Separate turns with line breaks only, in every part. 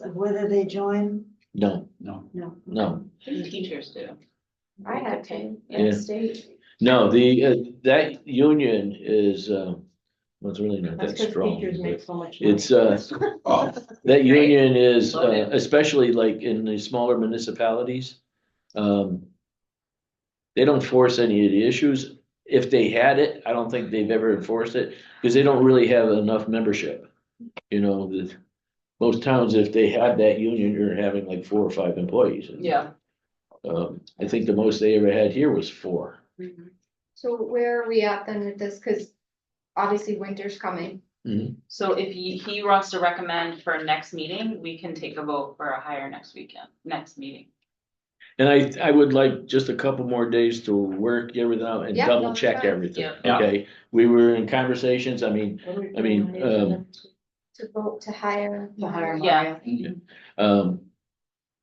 Like, Whether they join,
No,
No,
no.
No.
The teachers do.
I had
to.
Yeah.
in state.
no, the, uh, that union is, uh, well, it's really not
That's
that
because
strong.
teachers
but
make so much money.
It's, uh,
oh,
That union is,
Love
uh,
it.
especially like in the smaller municipalities, um. They don't force any of the issues. If they had it, I don't think they've ever enforced it, because they don't really have enough membership. You know, the, most towns, if they have that union, you're having like four or five employees.
Yeah.
Um, I think the most they ever had here was four.
Mm-hmm.
So where are we at then with this? Cause obviously winter's coming.
So if he, he wants to recommend for next meeting, we can take a vote for a hire next weekend, next meeting.
And I, I would like just a couple more days to work everything out and
Yeah,
double
that's
check
fine.
everything,
Yeah.
okay? We were in conversations, I mean, I mean, um,
to vote to hire.
To hire
Yeah.
um.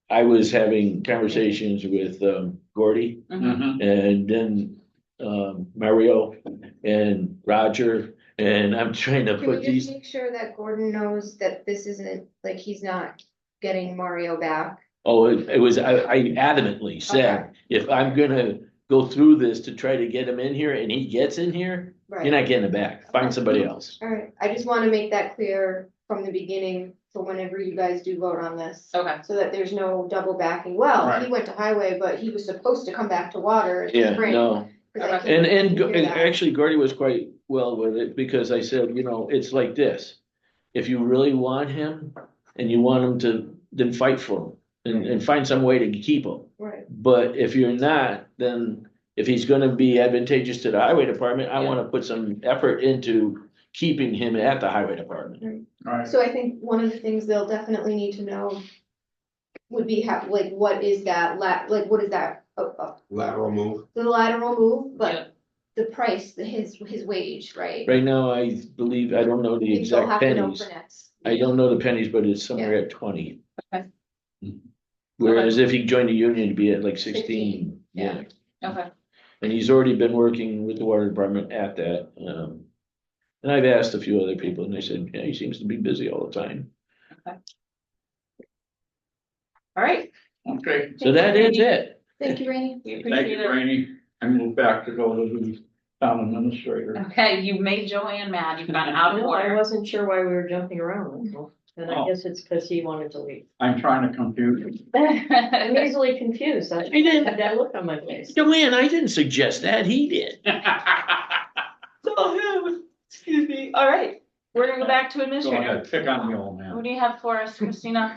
I was having conversations with um Gordy
Mhm.
mhm,
and then um Mario and Roger. And I'm trying to
Can we
put
just
these,
make sure that Gordon knows that this isn't, like, he's not getting Mario back?
oh, it it was, I I adamantly
Okay.
said, if I'm gonna. Go through this to try to get him in here and he gets in here, you're
Right,
not getting it back. Find somebody else.
alright, I just wanna make that clear from the beginning, for whenever you guys do vote on this.
Okay,
So that there's no double backing, well, he
Right.
went to highway, but he was supposed to come back to water in
Yeah,
the spring.
no.
'cause
Okay.
I keep
And, and,
hearing
and
that.
actually Gordy was quite well with it because I said, you know, it's like this. If you really want him and you want him to, then fight for him and, and find some way to keep him.
Right,
But if you're not, then if he's gonna be advantageous to the highway department, I wanna put some effort into keeping him at the highway department.
all right.
so I think one of the things they'll definitely need to know would be how, like, what is that la- like, what is that, uh, uh,
lateral move.
the lateral move, but
yeah,
the price, the his, his wage, right?
Right now, I believe, I don't know the
Things you'll
exact
have to know
pennies.
for next.
I don't know the pennies, but it's somewhere at twenty. Mm-hmm.
Okay.
Whereas if he joined a union, it'd be at like sixteen, yeah.
okay,
And he's already been working with the water department at that, um. And I've asked a few other people and they said, yeah, he seems to be busy all the time.
all right.
Okay,
So that is it.
Thank you, Rainy.
We
thank
appreciate
you,
it.
Rainey. I move back to go to the town administrator.
Okay, you made Joanne mad, you've gone out of
No, I
order.
wasn't sure why we were jumping around, that's all. and I
Oh.
guess it's because he wanted to leave.
I'm trying to compute.
I'm easily confused, I
didn't-
had that look on my face.
Joanne, I didn't suggest that, he did.
Go
Excuse me, all right, we're gonna go back to administrator.
ahead, pick on the old man.
Who do you have for us, Christina?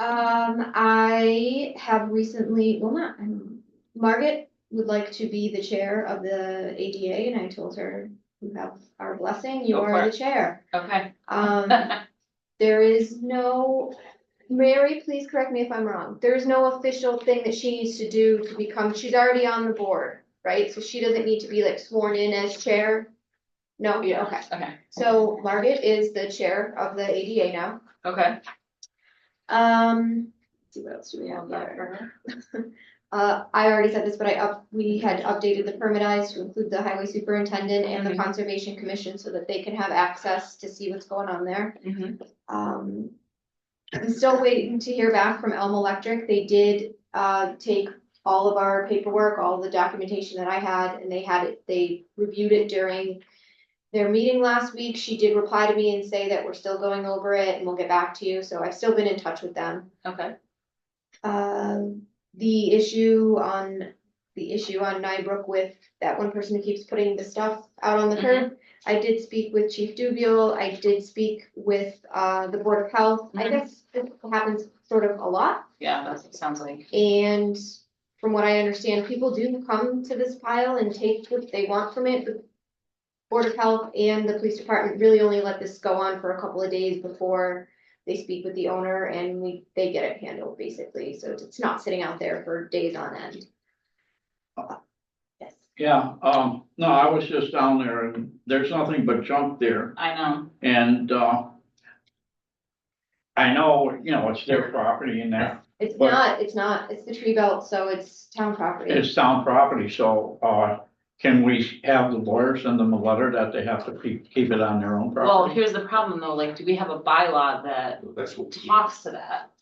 Um, I have recently, well, not, um, Margaret would like to be the chair of the ADA, and I told her, you have our blessing, you
Go for
are
it.
the chair.
Okay.
Um, there is no, Mary, please correct me if I'm wrong, there is no official thing that she needs to do to become, she's already on the board, right? So she doesn't need to be like sworn in as chair?
Oh,
No,
Yeah.
okay.
Okay,
So Margaret is the chair of the ADA now.
okay.
Um, let's see what else do we have here? Uh, I already said this, but I up, we had updated the permit eyes to include the highway superintendent and the
Mhm.
conservation commission so that they can have access to see what's going on there.
Mhm.
Um, I'm still waiting to hear back from Elm Electric. They did, uh, take all of our paperwork, all the documentation that I had, and they had it, they reviewed it during their meeting last week. She did reply to me and say that we're still going over it and we'll get back to you, so I've still been in touch with them.
Okay,
Um, the issue on, the issue on Nybrook with that one person who keeps putting the stuff out on the curb. I did speak with Chief Dubiel, I did speak with, uh, the Board of Health, I
Mhm.
guess this happens sort of a lot.
yeah, that sounds like.
And from what I understand, people do come to this pile and take what they want from it, The Board of Health and the police department really only let this go on for a couple of days before they speak with the owner and we, they get it handled basically, so it's not sitting out there for days on end. Yes.
Yeah, um, no, I was just down there and there's nothing but junk there
I know,
and, uh, I know, you know, it's their property and that,
It's
But-
not, it's not, it's the tree belt, so it's town property.
it's town property, so, uh, Can we have the lawyer send them a letter that they have to keep, keep it on their own property?
Well, here's the problem though, like, do we have a bylaw that
That's what. we-
talks to that?